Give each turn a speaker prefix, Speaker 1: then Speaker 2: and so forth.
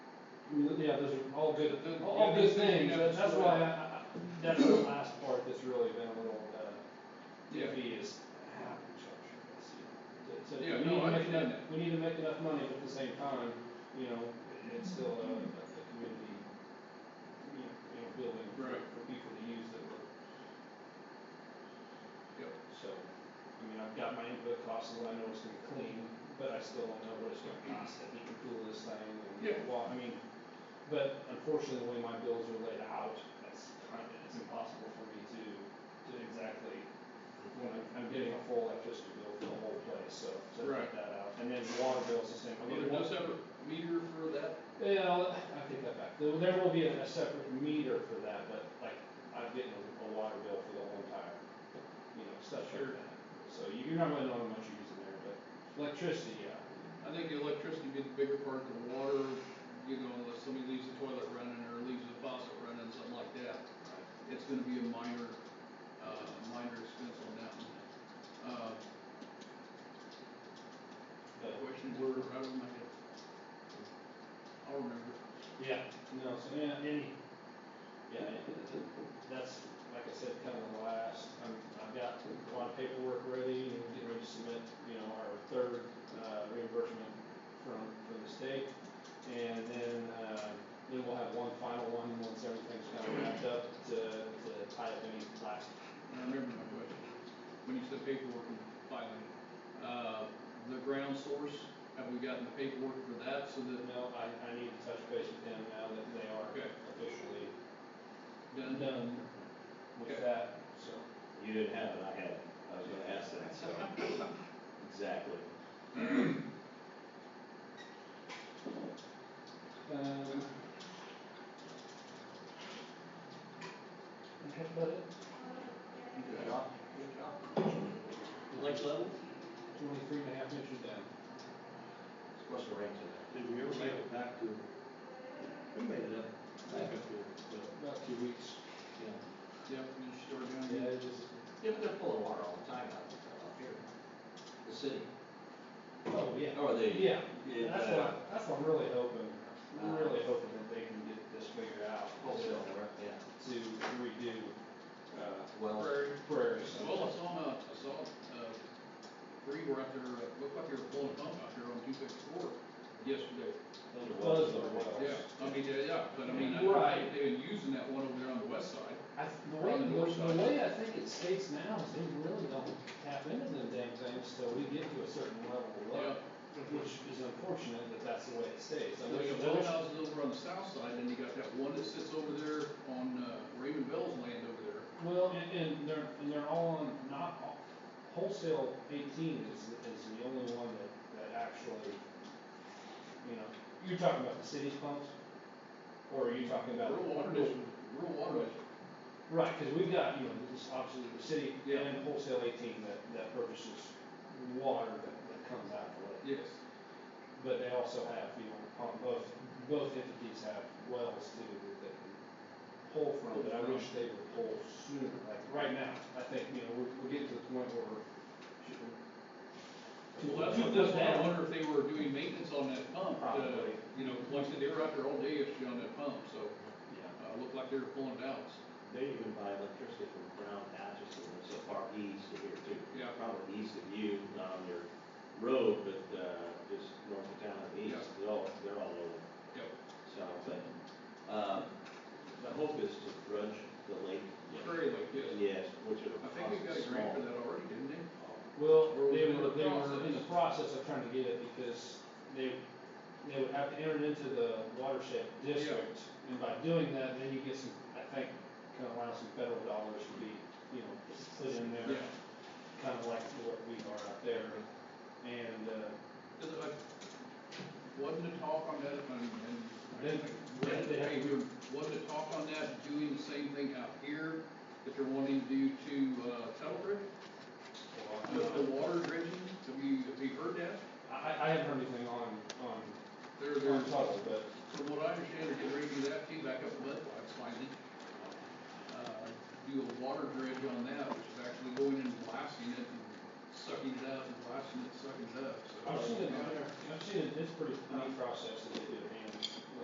Speaker 1: Yeah, those are all good,
Speaker 2: But the-
Speaker 1: all- all good
Speaker 2: the other thing
Speaker 1: things,
Speaker 2: you
Speaker 1: That-
Speaker 2: notice
Speaker 1: that's
Speaker 2: was-
Speaker 1: why I, I, I- that's the last part that's really been a little, uh,
Speaker 2: Yeah.
Speaker 1: iffy is how we structure this, you know. To- to-
Speaker 2: Yeah,
Speaker 1: we need to
Speaker 2: no, I
Speaker 1: make
Speaker 2: understand
Speaker 1: enough- We need to make enough money, but at the same time, you know, it's still a, a a community, you know, you know, building for,
Speaker 2: Right.
Speaker 1: for people to use that we're,
Speaker 2: Yep.
Speaker 1: so. I mean, I've got my input costs and what I know it's gonna clean, but I still don't know what it's gonna cost to heat and cool this thing
Speaker 2: Yeah.
Speaker 1: and, well, I mean, but unfortunately, the way my bills are laid out, that's kind of, it's impossible for me to, to exactly, when I'm, I'm getting a full electricity bill for the whole place, so, so I
Speaker 2: Right.
Speaker 1: put that out. And then the water bill's the same. I'll
Speaker 2: Well,
Speaker 1: get
Speaker 2: there's
Speaker 1: one-
Speaker 2: no separate meter for that?
Speaker 1: Yeah, I'll- I take that back. There, there will be a, a separate meter for that, but like, I'm getting a, a water bill for the whole entire, you know, stuff like
Speaker 2: Sure.
Speaker 1: that. So you- you're not really knowing how much you're using there, but electricity, yeah.
Speaker 2: I think the electricity would be the bigger part, the water, you know, unless somebody leaves the toilet running or leaves the faucet running, something like that. It's gonna be a minor, uh, minor expense on that one. Uh,
Speaker 1: But,
Speaker 2: question were right over my head. I'll remember.
Speaker 1: yeah, no, so, yeah, any, yeah, it- it- it- that's, like I said, kind of the last, I'm, I've got a lot of paperwork ready and getting ready to submit, you know, our third, uh, reimbursement from, from the state. And then, uh, then we'll have one final one, once everything's kind of wrapped up, to, to tie up any last.
Speaker 2: I remember my question. When you said paperwork and filing, uh, the ground source, have we gotten the paperwork for that so that
Speaker 1: No, I, I need to touch base with them now that they are
Speaker 2: Okay.
Speaker 1: officially
Speaker 2: done?
Speaker 1: done with
Speaker 2: Okay.
Speaker 1: that, so.
Speaker 3: You didn't have it, I had it, I was gonna ask that, so, exactly.
Speaker 1: Um. That's about it.
Speaker 2: Good job. Good job.
Speaker 3: Lake level?
Speaker 1: Twenty-three and a half inches down.
Speaker 3: What's the range of that? Did we ever make it back to? We made it up, back up here, but,
Speaker 1: About two weeks.
Speaker 3: yeah.
Speaker 2: Yep, we just started down
Speaker 1: Yeah, it
Speaker 2: here.
Speaker 1: was,
Speaker 3: Yeah, but they're full of water all the time out there, up here. The city.
Speaker 1: oh, yeah.
Speaker 3: Or the.
Speaker 1: Yeah,
Speaker 3: Yeah,
Speaker 1: that's
Speaker 3: uh,
Speaker 1: what, I- that's what I'm really hoping, I'm
Speaker 3: Uh,
Speaker 1: really hoping that they can get this figured out.
Speaker 3: Wholesale, work, yeah.
Speaker 1: To redo, uh,
Speaker 3: Well,
Speaker 2: Prairie.
Speaker 1: prairie.
Speaker 2: Well, I saw, uh, I saw, uh, three were out there, uh, looked like they were pulling a pump out there on two fifty-four yesterday.
Speaker 3: those are wells.
Speaker 1: Those are wells.
Speaker 2: Yeah, I mean, yeah, yeah, but I mean, I know they- they've been using that one over there on the west side.
Speaker 1: I, the way,
Speaker 2: On the north
Speaker 1: the
Speaker 2: side.
Speaker 1: way I think it states now is they really don't tap into them damn things till we get to a certain level of
Speaker 2: Yeah.
Speaker 1: load. Which is unfortunate that that's the way it stays. I
Speaker 2: There's
Speaker 1: wish it
Speaker 2: a well
Speaker 1: was.
Speaker 2: houses over on the south side, and you got that one that sits over there on, uh, Raymond Bell's land over there.
Speaker 1: Well, and, and they're, and they're all on, not, all- wholesale eighteen is, is the only one that, that actually, you know, you're talking about the city's pumps? Or are you talking about?
Speaker 2: Rural water district, rural water district.
Speaker 1: Right, cause we've got, you know, this obviously the city
Speaker 2: Yeah.
Speaker 1: and wholesale eighteen that, that purchases water that, that comes out the lake.
Speaker 2: Yes.
Speaker 1: But they also have, you know, on both, both entities have wells too that they can pull from, but I wish they would pull sooner, like right now. I think, you know, we're, we're getting to the point where we're.
Speaker 2: Well, that's,
Speaker 1: Keep those
Speaker 2: that's why I
Speaker 1: down.
Speaker 2: wonder if they were doing maintenance on that pump, uh,
Speaker 1: Probably.
Speaker 2: you know, like I said, they were out there all day yesterday on that pump, so,
Speaker 1: Yeah.
Speaker 2: uh, looked like they were pulling it out.
Speaker 3: They even buy electricity from Brown Atchison, that's so far east of here too.
Speaker 2: Yeah.
Speaker 3: Probably east of you, not on your road, but, uh, just north of town and east, they're all, they're all over,
Speaker 2: Yep.
Speaker 3: so, but, um, the hope is to grudge the lake.
Speaker 2: Prairie Lake, yes.
Speaker 3: Yes, which are.
Speaker 2: I think we've got a grant for that already, didn't they?
Speaker 1: Well,
Speaker 2: Or was
Speaker 1: they
Speaker 2: it in
Speaker 1: were,
Speaker 2: the
Speaker 1: they were in the
Speaker 2: process?
Speaker 1: process of trying to get it because they, they would have to enter into the watershed district. And by doing that, then you get some, I think, kind of allow some federal dollars to be, you know, put in there,
Speaker 2: Yeah.
Speaker 1: kind of like what we are out there. And, uh,
Speaker 2: Is it like, wasn't a talk on that, and, and.
Speaker 1: Then- then they have
Speaker 2: Hey,
Speaker 1: to-
Speaker 2: we were- Wasn't a talk on that, doing the same thing out here that they're wanting to do to, uh, Tuttlebridge? With the water dredging, have you, have you heard that?
Speaker 1: I, I haven't heard anything on, on,
Speaker 2: They're, they're,
Speaker 1: on Tuttle, but
Speaker 2: from what I understand, they're getting ready to do that too, back up Bud Lights finally. Uh, Do a water dredge on that, which is actually going and blasting it and sucking it up and blasting it, sucking it up, so. uh,
Speaker 1: I've seen it, I've seen it, it's pretty neat process that they do.